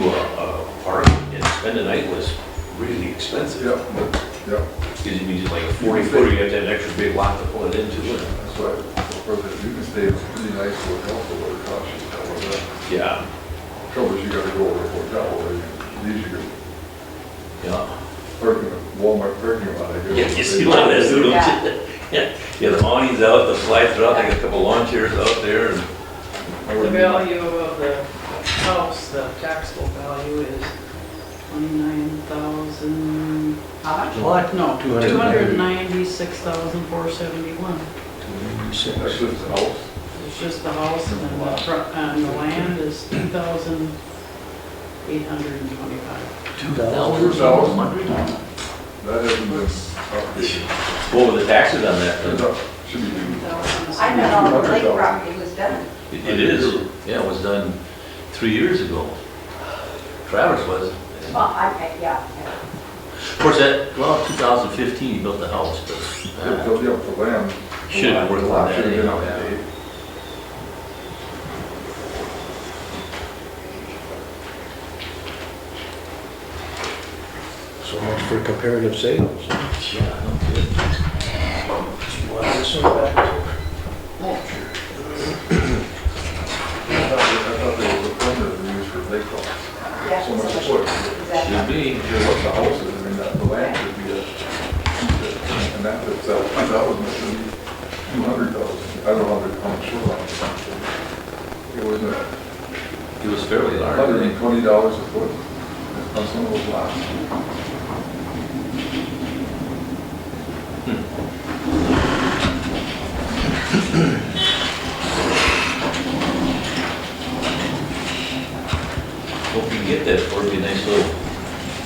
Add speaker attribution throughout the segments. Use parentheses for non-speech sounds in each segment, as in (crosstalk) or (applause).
Speaker 1: uh, ten a night was really expensive.
Speaker 2: Yep, yep,
Speaker 1: Because you need like a forty footer, you have to have an extra big lot to pull it into. and-
Speaker 2: that's why, for the, you can stay in a pretty nice hotel for what it costs you, however, the
Speaker 1: Yeah,
Speaker 2: trouble is you gotta go over a hotel, or you, these are your
Speaker 1: yeah.
Speaker 2: parking, Walmart parking lot, I guess.
Speaker 1: Yeah, you see what that's doing. (laughs) Yeah, yeah, the awning's out, the slides are out, they got a couple lawn chairs out there and,
Speaker 2: I
Speaker 3: The
Speaker 2: wouldn't-
Speaker 3: value of the house, the taxable value is twenty-nine thousand,
Speaker 4: What? No, two
Speaker 3: two hundred and
Speaker 4: hundred.
Speaker 3: ninety-six thousand four seventy-one.
Speaker 2: That's just the house,
Speaker 3: It's just the house and then the front, and the land is two thousand eight hundred and twenty-five.
Speaker 4: Two
Speaker 2: Two thousand.
Speaker 4: thousand.
Speaker 2: that hasn't been updated,
Speaker 1: what were the taxes on that?
Speaker 2: It's
Speaker 1: then?
Speaker 2: up- should be new.
Speaker 5: I know all the lake property was done.
Speaker 1: It it is, yeah, it was done three years ago. Travis was.
Speaker 5: Well, I, I- yeah,
Speaker 1: Of course, that, well, 2015, he built the house, but.
Speaker 2: If
Speaker 1: uh,
Speaker 2: they'll be up for land.
Speaker 1: Should've
Speaker 2: the lot-
Speaker 1: worked
Speaker 2: the lot
Speaker 1: on that
Speaker 2: should've been
Speaker 1: anyhow, yeah.
Speaker 2: updated.
Speaker 4: So much for comparative sales.
Speaker 1: Yeah, no kidding.
Speaker 2: I thought they- I thought they were permanently used for lake lots.
Speaker 5: yeah.
Speaker 2: So much wood.
Speaker 1: Should
Speaker 5: Exactly.
Speaker 1: be.
Speaker 2: Because what the house is, I mean, that, the land should be a, and that itself, two thousand, should be two hundred thousand. I don't know how they come shoreline. It was a
Speaker 1: It was fairly large. I
Speaker 2: hundred
Speaker 1: think.
Speaker 2: and twenty dollars a foot on some of those lots.
Speaker 1: Hope you get that for me, nice little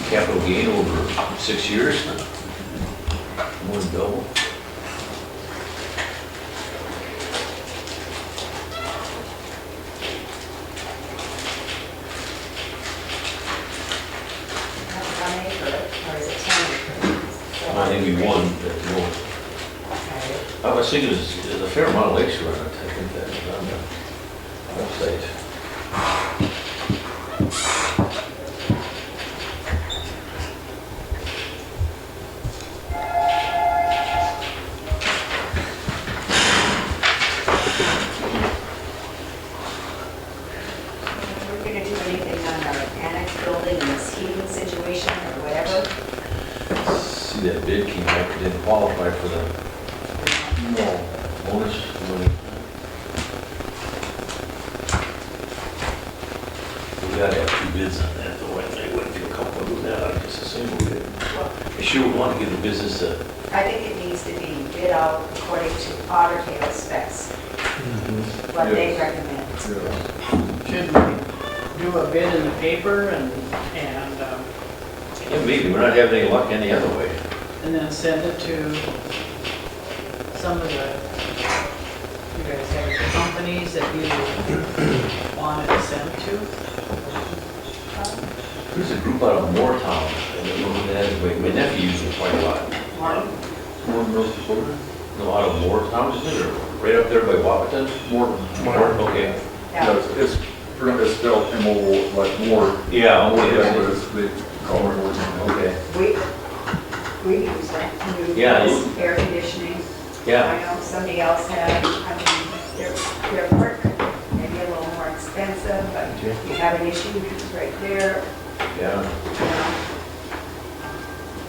Speaker 1: capital gain over six years. More than double.
Speaker 5: One acre, or is it 10 acres? So-
Speaker 1: I think we won, but well,
Speaker 5: Okay.
Speaker 1: I was thinking there's there's a fair amount of lakes around, I think that's on the website.
Speaker 5: If we're gonna do anything on our annex building, and this heating situation or whatever,
Speaker 1: See that bid came back, it didn't qualify for the
Speaker 2: No.
Speaker 1: bonus money. We gotta have two bids on that, though, I think, what if you couple of them, I guess the same will bid. I sure would want to give the business a,
Speaker 5: I think it needs to be bid out according to Otter Tail specs, what they
Speaker 2: Mm-hmm. Yes.
Speaker 5: recommend.
Speaker 2: Yeah.
Speaker 3: Should we do a bid in the paper and, and, um,
Speaker 1: yeah, maybe, we're not having any luck any other way.
Speaker 3: and then send it to some of the, you guys have the companies that you want it sent to?
Speaker 1: There's a group out of Moortown, I don't know who that is, but my nephew uses it quite a lot.
Speaker 3: One,
Speaker 2: More North Dakota?
Speaker 1: No, out of Moortown, is it, or right up there by Wapaton?
Speaker 2: More.
Speaker 1: Moortown, okay.
Speaker 2: Yeah,
Speaker 5: Yeah.
Speaker 2: it's, it's, it's spelled M O, like more,
Speaker 1: Yeah,
Speaker 2: more,
Speaker 1: okay,
Speaker 2: yeah, but
Speaker 1: that's
Speaker 2: it's, they call it more.
Speaker 1: it. okay,
Speaker 5: We, we use that, new
Speaker 1: Yeah, you-
Speaker 5: air conditioning.
Speaker 1: yeah.
Speaker 5: I know somebody else had, I mean, their, their work may be a little more expensive, but
Speaker 1: Yeah.
Speaker 5: you have an issue right there.
Speaker 1: Yeah,
Speaker 5: you know.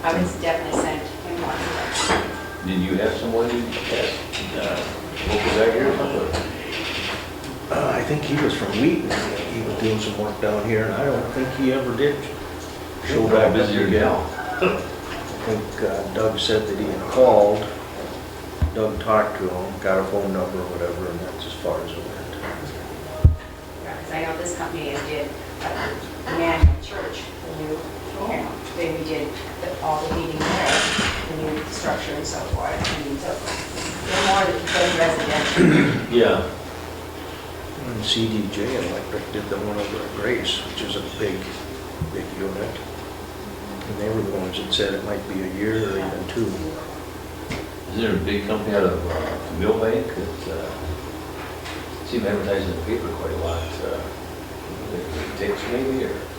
Speaker 5: I would definitely send him one.
Speaker 1: did you have someone you asked, uh, what was that here or something?
Speaker 4: Uh, I think he was from Wheaton, he was doing some work down here, and I don't think he ever did. show
Speaker 1: Probably
Speaker 4: up.
Speaker 1: busier gal.
Speaker 4: I think uh, Doug said that he had called, Doug talked to him, got a phone number or whatever, and that's as far as it went.
Speaker 5: Because I know this company has did, uh, Emmanuel Church, the new, you know, they redid the- all the heating there, the new structure and so forth, and so, they're more than residential.
Speaker 1: Yeah.
Speaker 4: And CDJ Electric did the one over at Grace, which is a big, big unit. And they were the ones that said it might be a year or even two.
Speaker 1: Is there a big company out of uh, Millbank that, uh, seem advertising in the paper quite a lot, uh, that takes maybe, or?